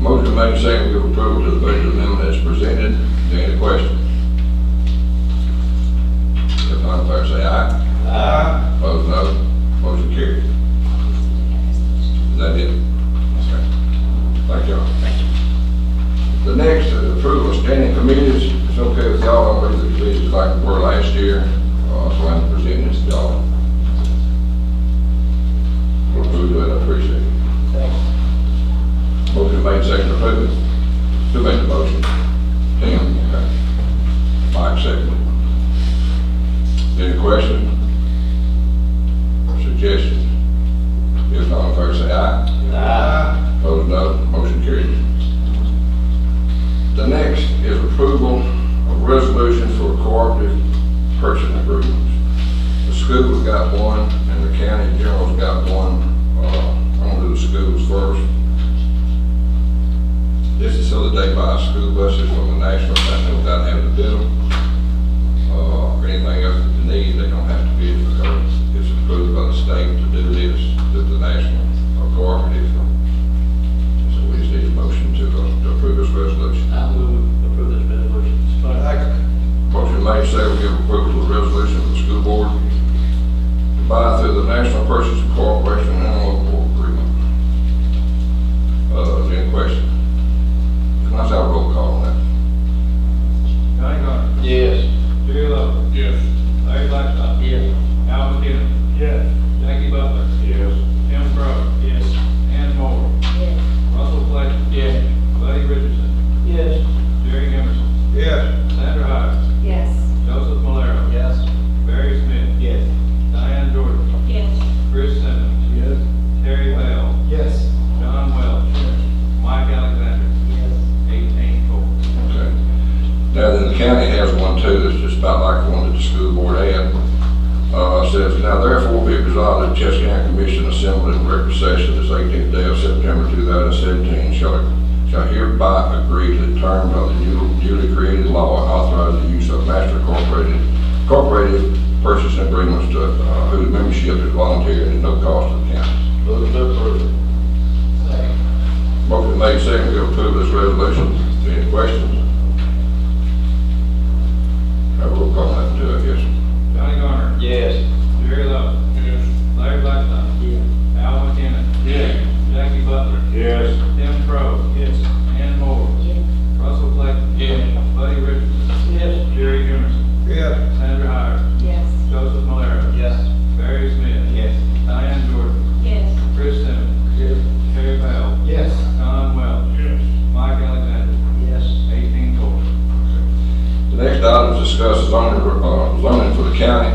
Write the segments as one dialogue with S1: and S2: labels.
S1: Motion made second to approve to the budget amendment as presented. Is there any question? If not, all in favor say aye.
S2: Aye.
S1: Opposed, no. Motion carried. Is that it? Okay. Thank y'all. The next is approval of standing committees. It's okay with y'all, I believe the committees like we were last year, uh, so I'm presenting this to y'all. We'll do it, I appreciate it. Motion made, second approved. Who made the motion? Tim, okay. Mike seconded. Any questions? Suggestions? If not, all in favor say aye.
S2: Aye.
S1: Opposed, no. Motion carried. The next is approval of resolution for cooperative purchasing agreements. The school's got one, and the county general's got one. Uh, I'm gonna do the schools first. This is so that they buy school buses from the National Center without having to bid them. Uh, or anything else that they need, they don't have to bid because it's approved by the state to do this, that the national or cooperative. So we just need a motion to, uh, to approve this resolution.
S3: I move approve this resolution.
S2: Second.
S1: Motion made, second, give approval to the resolution of the school board to buy through the National Purchasing Corporation and local agreement. Uh, is there any question? Can I have a roll call on that?
S2: Johnny Garner.
S3: Yes.
S2: Jerry Love. Yes. Larry Blackstock.
S3: Yes.
S2: Al McKinnon. Yes. Jackie Butler. Yes. Tim Crow. Yes. Ann Moore. Russell Fletcher.
S3: Yes.
S2: Buddy Richardson.
S3: Yes.
S2: Jerry Emerson.
S1: Yes.
S2: Sandra Hyer.
S4: Yes.
S2: Joseph Malaro.
S3: Yes.
S2: Barry Smith.
S3: Yes.
S2: Diane Jordan.
S4: Yes.
S2: Chris Simmons.
S3: Yes.
S2: Terry Bell.
S3: Yes.
S2: John Welch. Mike Alexander.
S3: Yes.
S2: Eighteen four.
S1: Okay. Now, then the county has one too, that's just about like the one that the school board had. Uh, it says, now therefore be resolved that Chester County Commission assembled in regular session this eighteenth day of September two thousand seventeen shall, shall hereby agree to the terms of the new- newly created law and authorize the use of master incorporated, incorporated purchasing agreements to, uh, whose membership is voluntary and at no cost to the county.
S3: Move to approve. Second.
S1: Motion made second to approve this resolution. Any questions? Have a roll call on that too, I guess.
S2: Johnny Garner.
S3: Yes.
S2: Jerry Love. Yes. Larry Blackstock.
S3: Yes.
S2: Al McKinnon.
S3: Yes.
S2: Jackie Butler.
S3: Yes.
S2: Tim Crow. Yes. Ann Moore. Russell Fletcher.
S3: Yes.
S2: Buddy Richardson.
S3: Yes.
S2: Jerry Emerson.
S1: Yeah.
S2: Sandra Hyer.
S4: Yes.
S2: Joseph Malaro.
S3: Yes.
S2: Barry Smith.
S3: Yes.
S2: Diane Jordan.
S4: Yes.
S2: Chris Simmons.
S3: Yes.
S2: Terry Powell.
S3: Yes.
S2: Don Welch. Mike Alexander.
S3: Yes.
S2: Eighteen four.
S1: The next item is discuss zoning, uh, zoning for the county.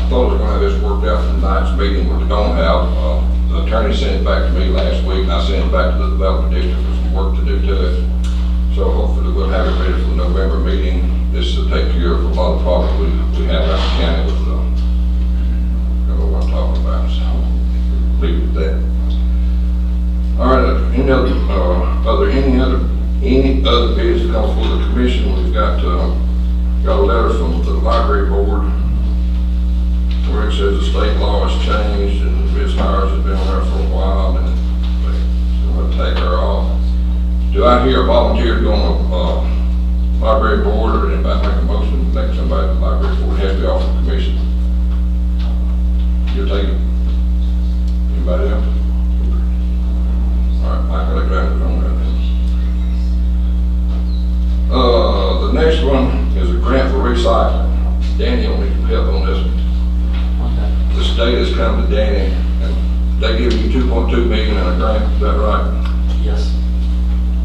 S1: I thought we were gonna have this worked out in tonight's meeting, which we don't have. Uh, The attorney sent it back to me last week, and I sent it back to the development district for some work to do to it. So hopefully we'll have it ready for the November meeting. This will take care of a lot of problems we, we have out in the county with, um, I don't know what I'm talking about, so leave it at that. All right, any other, uh, are there any other, any other bids that come for the commission? We've got, uh, got a letter from the library board where it says the state law has changed and Ms. Hires has been around for a while and they're gonna take her off. Do I hear a volunteer going to, uh, library board or anybody make a motion, to make somebody at the library board has to be off the commission? You're taking, anybody else? All right, Mike, I'll grab it on that. Uh, the next one is a grant for recycling. Daniel needs some help on this. one. The state has come to Danny, and they give you two point two million in a grant, is that right?
S3: Yes.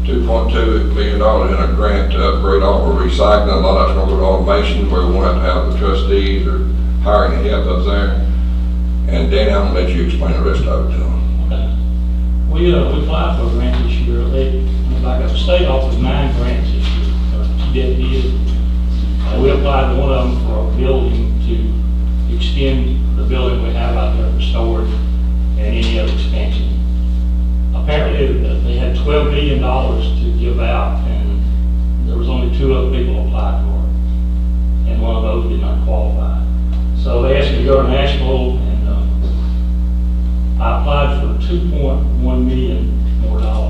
S1: Two point two million dollars in a grant to upgrade all the recycling, a lot of it's gonna go to automation, where we won't have to have the trustees or hiring the help up there. And Danny, I'm gonna let you explain the rest of it to him.
S5: Okay. We, uh, we applied for a grant this year, they, like the state offered nine grants this year, or two that did. Uh, We applied to one of them for a building to extend the building we have out there for storage and any other expansion. Apparently, uh, they had twelve million dollars to give out, and there was only two other people applied for it. And one of those did not qualify. So they asked me to go to Nashville and, uh, I applied for two point one million more dollars